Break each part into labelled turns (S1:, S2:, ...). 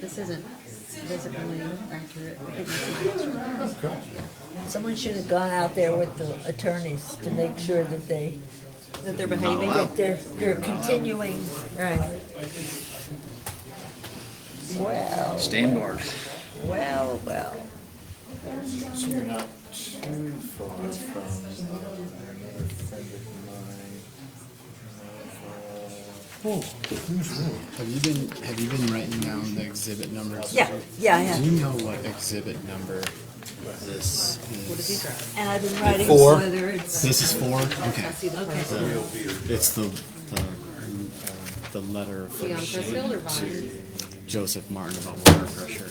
S1: this isn't visibly accurate. but it's an answer.
S2: Someone should have gone out there with the attorneys to make sure that they,
S1: That they're behaving.
S2: that they're, they're continuing, right. Well,
S3: Stand guard.
S2: well, well.
S4: So you're not too far from another friend of mine.
S5: Have you been Have you been writing down the exhibit numbers?
S2: Yeah, yeah, I have.
S5: Do you know what exhibit number this is?
S1: What did you grab?
S2: And I've been writing
S5: Four.
S2: whether it's.
S5: This is four. Okay.
S1: Okay.
S5: It's the the, um, the letter from
S1: Leon
S5: Shane
S1: Pressfield or Bonner?
S5: to Joseph Martin about water pressure.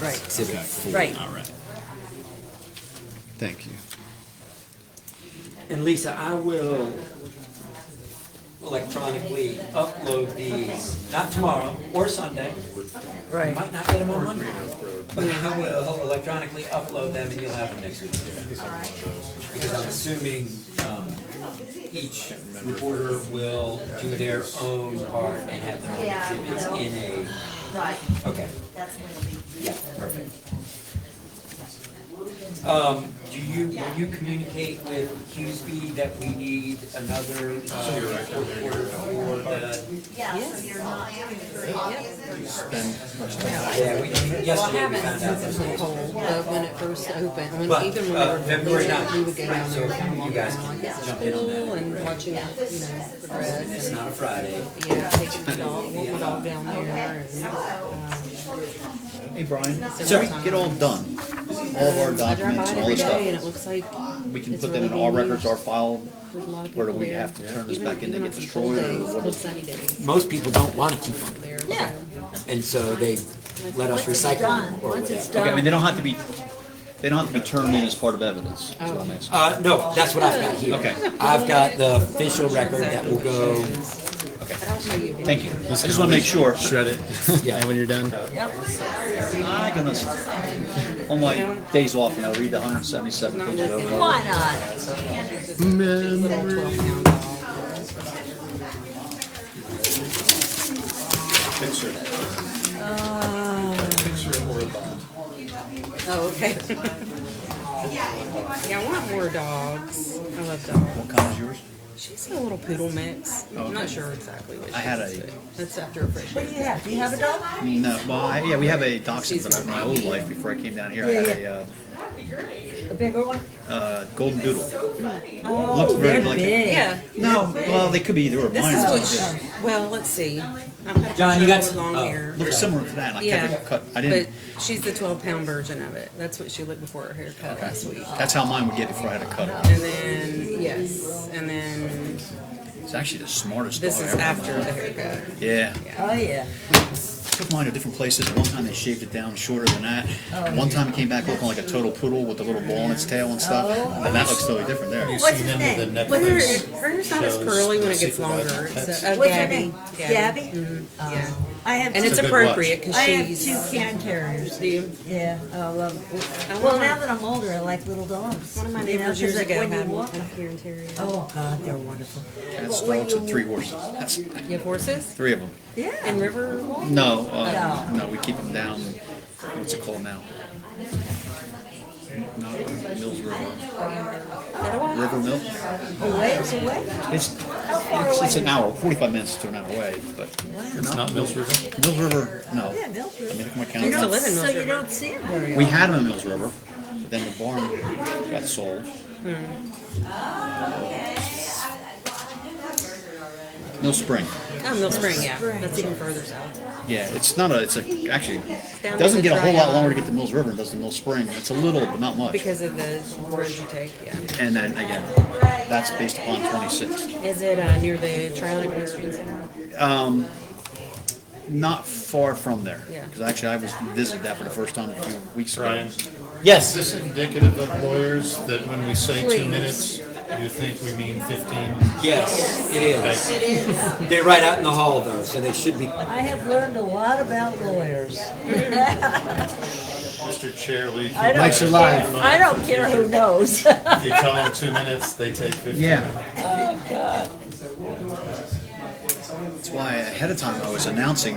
S2: Right.
S5: Exhibit four.
S2: Right.
S5: All right. Thank you.
S6: And Lisa, I will electronically upload these, not tomorrow or Sunday. I
S2: Right,
S6: might not get them on Monday. But I will electronically upload them and you'll have them next week. Because I'm assuming, um, each reporter will do their own part and have their own exhibits in
S7: Right,
S6: a, okay.
S7: that's when it'll be.
S6: Yeah, perfect. Um, do you, will you communicate with Hughesby that we need another, uh, reporter for the?
S7: Yeah, so you're not having three obvious.
S6: Yeah, we, yesterday we found out
S1: It's
S6: those
S1: not
S6: names.
S1: cold,
S6: uh,
S1: but when it first opened, when,
S6: But,
S1: even when
S6: uh,
S1: we were doing
S6: February
S1: it,
S6: ninth,
S1: we would go down
S6: so
S1: there and walk
S6: you guys
S1: around
S6: can
S1: like
S6: jump in on
S1: school
S6: that.
S1: and watching, you know,
S6: And
S1: progress
S6: it's
S1: and,
S6: not a Friday.
S1: yeah, taking the dog, walking the dog down there and, um,
S3: Hey, Brian,
S1: Sir.
S3: we get all done, all of our
S1: I drive by
S3: documents,
S1: it
S3: all
S1: every
S3: this
S1: day and it
S3: stuff,
S1: looks like
S3: we can
S1: it's
S3: put them in
S1: really
S3: our
S1: being
S3: records,
S1: used.
S3: our file,
S1: There's a lot of
S3: or do
S1: people
S3: we
S1: there.
S3: have to turn this
S1: Even-
S3: back in to
S1: even
S3: get
S1: on some cold
S3: destroyed, or
S1: days,
S3: what
S1: on
S3: is?
S1: sunny days
S6: Most people don't wanna keep them,
S1: there.
S2: Yeah.
S6: and so they let us
S2: Once it's
S6: recycle
S2: done,
S6: them or
S2: once it's
S6: whatever.
S2: done.
S3: Okay, I mean, they don't have to be, they don't have to be turned in as part of evidence, is what I'm asking.
S6: Uh, no, that's what I've got here.
S3: Okay.
S6: I've got the official record that will go,
S3: Thank you. I just wanna make sure.
S5: Shred it.
S6: Yeah.
S5: and when you're done.
S2: yep.
S3: My goodness. On my days off, and I read the hundred seventy-seven pages over. and over.
S2: Why not?
S5: Man,
S1: Twelve pound dog.
S4: Picture, picture or a bond.
S1: Oh, okay. Yeah, I want more dogs. I love dogs.
S3: What kind is yours?
S1: She's a little poodle mix. I'm not sure exactly what she
S3: I had
S1: is,
S3: a-
S1: but That's after a fresh.
S2: What do you have? Do you have a dog?
S3: No, well, I, yeah, we have a dachshund, but in my old life, before I came down here, I had a,
S2: A bigger one?
S3: uh, uh, golden doodle.
S2: Oh,
S3: very
S2: they're
S3: like-
S2: big.
S1: Yeah.
S3: No, well, they could be either or
S1: This is
S3: mine.
S1: what she, well, let's see. I'm
S6: John, you got-
S1: long
S6: oh.
S1: hair.
S3: Looks similar to that, and I
S1: Yeah.
S3: kept it cut, I
S1: But
S3: didn't,
S1: she's the twelve pound version of it. That's what she looked before her haircut last week.
S3: that's how mine would get before I had to cut it.
S1: And then, yes, and then
S3: It's actually the smartest dog
S1: this
S3: I
S1: is
S3: ever had.
S1: after the haircut.
S3: Yeah.
S2: Oh, yeah.
S3: Took mine to different places. One time they shaved it down shorter than that.
S1: Oh,
S3: One time it came back looking like a total poodle with the little ball on its tail and stuff.
S1: Oh.
S3: And that looks totally different there.
S2: What's
S5: seen
S2: his
S5: them
S2: name?
S5: with the
S1: Well, her,
S5: Netflix
S1: hers not as
S5: shows,
S1: curly when
S5: the
S1: it gets
S5: supervisor
S1: longer. It's
S5: pets.
S1: a, a
S2: What's her
S1: Gabby.
S2: name?
S1: Gabby. Oh.
S2: Gabby? Oh.
S1: Yeah.
S2: I have
S1: And it's
S2: two,
S5: a good watch.
S1: appropriate because
S2: I have
S1: she's.
S2: two can carriers.
S1: Do you-
S2: Yeah, oh, I love
S1: I
S2: Well,
S1: want-
S2: now that I'm older, I like little dogs.
S1: One of my
S2: You know,
S1: neighbors
S2: 'cause
S1: years
S2: like
S1: ago
S2: when you
S1: had
S2: walk-
S1: one here and Terry.
S2: Oh, God, they're wonderful.
S3: Cats, dogs, and three horses. That's
S1: You have horses
S3: three of them.
S2: Yeah.
S1: in River?
S3: No, uh, no, we keep them down. What's it called now? Not Mills River. River Mill?
S2: Away, it's away.
S3: It's, it's, it's an hour, 45 minutes to an hour away, but. It's not Mills River? Mills River, no.
S2: Yeah, Milford.
S3: I mean, look at my
S2: You
S3: calendar.
S2: don't-
S1: live in
S2: So you
S1: Milford.
S2: don't see them very
S3: We
S2: often.
S3: had them in Mills River, but then the barn got sold.
S1: Hmm.
S3: Mill Spring,
S1: Oh, Mill Spring, yeah. That's even further south.
S3: yeah, it's not a, it's a, actually,
S1: Down
S3: it
S1: to the
S3: doesn't get a whole lot
S1: dry
S3: longer to get to Mills River than it does to Mill Spring, it's a little, but not much.
S1: Because of the roads you take, yeah.
S3: And then again, that's based upon twenty-six.
S1: Is it uh, near the Trial and Conviction Center?
S3: Not far from there,
S1: Yeah.
S3: because actually I was visited that for the first time a few weeks ago.
S4: Brian, is
S6: Yes,
S4: this indicative of lawyers that when we say
S1: Please.
S4: two minutes, you think we mean fifteen?
S6: yes, it is. They're right out in the hall though, so they should be
S2: I have learned a lot about lawyers.
S4: Mr. Chair, we.
S2: I don't
S5: Mike's
S2: care-
S5: alive.
S2: I don't care who knows.
S4: If you tell them two minutes, they take fifteen.
S3: Yeah. That's why ahead of time I was announcing